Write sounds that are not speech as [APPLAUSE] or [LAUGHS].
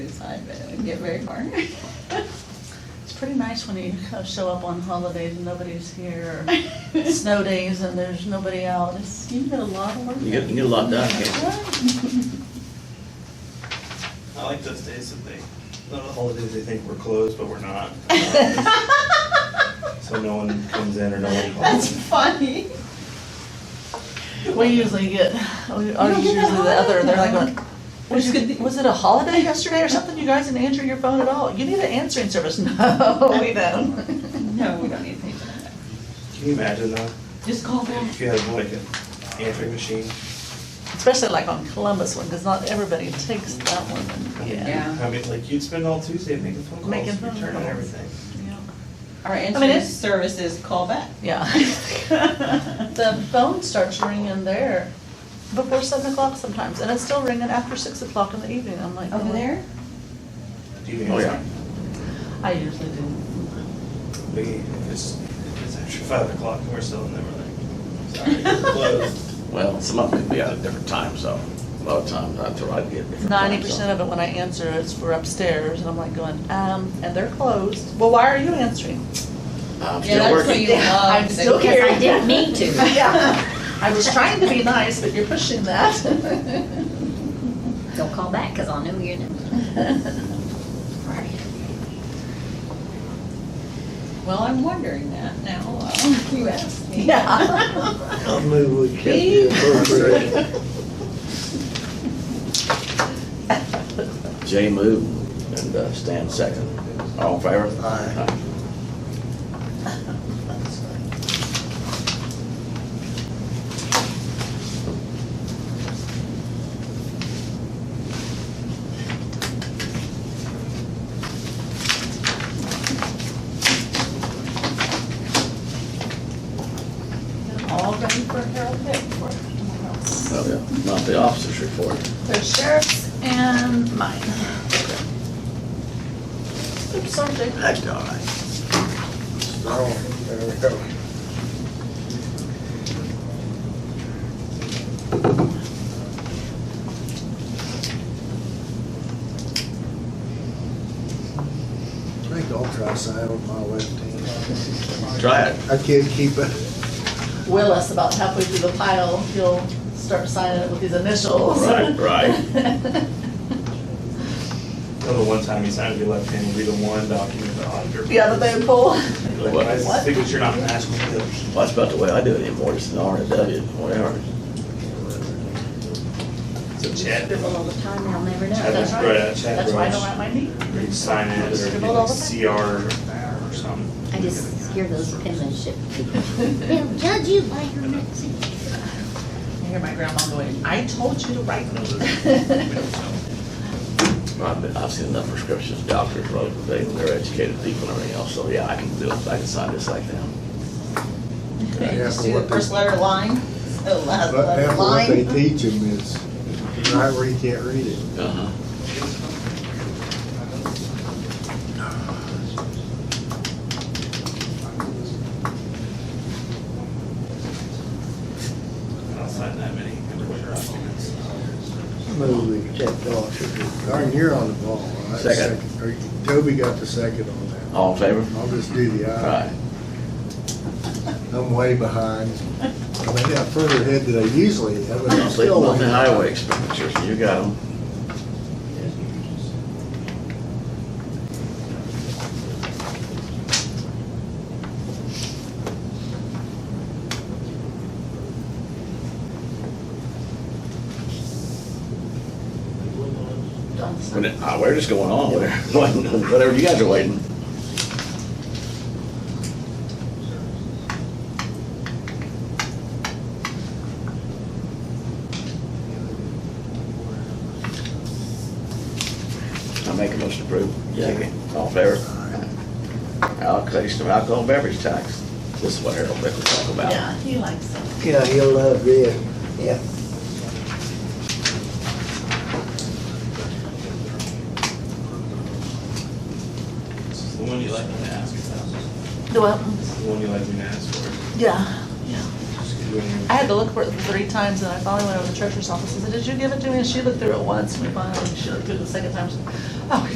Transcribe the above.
side, but it wouldn't get very far. It's pretty nice when you uh, show up on holidays and nobody's here, or snow days and there's nobody out. It's, you get a lot of work. You get, you get a lot done, can't you? I like those days that they, the holidays they think we're closed, but [LAUGHS] we're not. So no one comes in or no one [LAUGHS] That's calls. funny. We usually get, we- ours is get usually that the other, they're like, holiday. going, was it, was it a holiday yesterday or something? You guys didn't answer your phone at all. You need an answering service. [LAUGHS] No, we don't. No, we don't need to pay for that. Can you imagine though? Just call them. If you had like an answering machine, Especially like on Columbus one, because not everybody takes that one. Yeah. Yeah. I mean, like you'd spend all Tuesday making phone Making calls, phone returning calls. everything. Our I mean, answering it's- service is call back. Yeah. The phone starts ringing there before seven o'clock sometimes, and it's still ringing after six o'clock in the evening. I'm [LAUGHS] like, "Oh." Over there? Do you Oh, answer? yeah. I usually do. We, if it's, if it's after five o'clock and we're still in there, we're like, sorry, [LAUGHS] we're closed. Well, some of them could be out at differerent times, so a lot of times I thought I'd get different Ninety times. percent of it when I answer is for upstairs, and I'm like going, um, and they're closed. Well, why are you answering? Yeah, I'm still that's what you working. love. I'm still to- here. Because I didn't mean [LAUGHS] to. Yeah. I was trying to be nice, but you're pushing that. [LAUGHS] Don't call back, because I'll know you're not. Well, I'm wondering that now. uh, You asked me. Yeah. I'll move we kept the appropriate. Jay moved and uh, Stan second. All in favor? Aye. All ready for Harold Vic for tomorrow. Oh, yeah. Not the officers report. The sheriff's and mine. Oops, sorry, Jake. That's all right. Oh, there we go. I think I'll try side on my left hand. Try it. I can't keep it. Willis about halfway through the pile, he'll start signing it with his initials. Right, right. Well, the one time you signed your left hand, read the one document, the auditor. Yeah, [LAUGHS] the they pull. Like, why is the What? signature not matched with the others? Well, that's about the way I do it anymore, just an R and a W, whatever. So Chad, Scribble all the time, I'll never Chad know. was right. right, uh, Chad That's why I Rush. don't write my name. Or you sign it, or you Scribbled all get the CR or something. I just hear those penmanship people. They'll judge you by your next I hear my grandma going, I told you to write me. I've, I've seen enough prescriptions, doctors wrote, they, they're educated people and everything else, so yeah, I can do it, I can sign this like that. Just do the first letter line, the last But letter half of what they line. teach them is, right where you can't read it. Uh-huh. I don't sign that many. Move we kept off. Darn, you're on the ball. All right, Second. Or you- Toby got the second on that. All in favor? I'll just do the All eye. right. I'm way behind. I mean, I'm further ahead than I usually am, but I'm I'm sleeping still. on the way highway expenditures, you got them. We're not- ah, We're just going on, we're, whatever [LAUGHS] you guys are waiting. I make a motion to approve. Second. All in favor? Allocation of alcohol beverage tax. This is what Harold Vick will talk about. Yeah, he likes it. Yeah, he'll love this. Yeah. This is the one you like me to ask about. Do what? This is the one you like me to ask for. Yeah, yeah. Just 'cause you ain't- I had to look for it three times, and I finally went over to the treasurer's office and said, did you give it to me? And she looked through it once, and we finally, she looked through it the second time, she said, oh,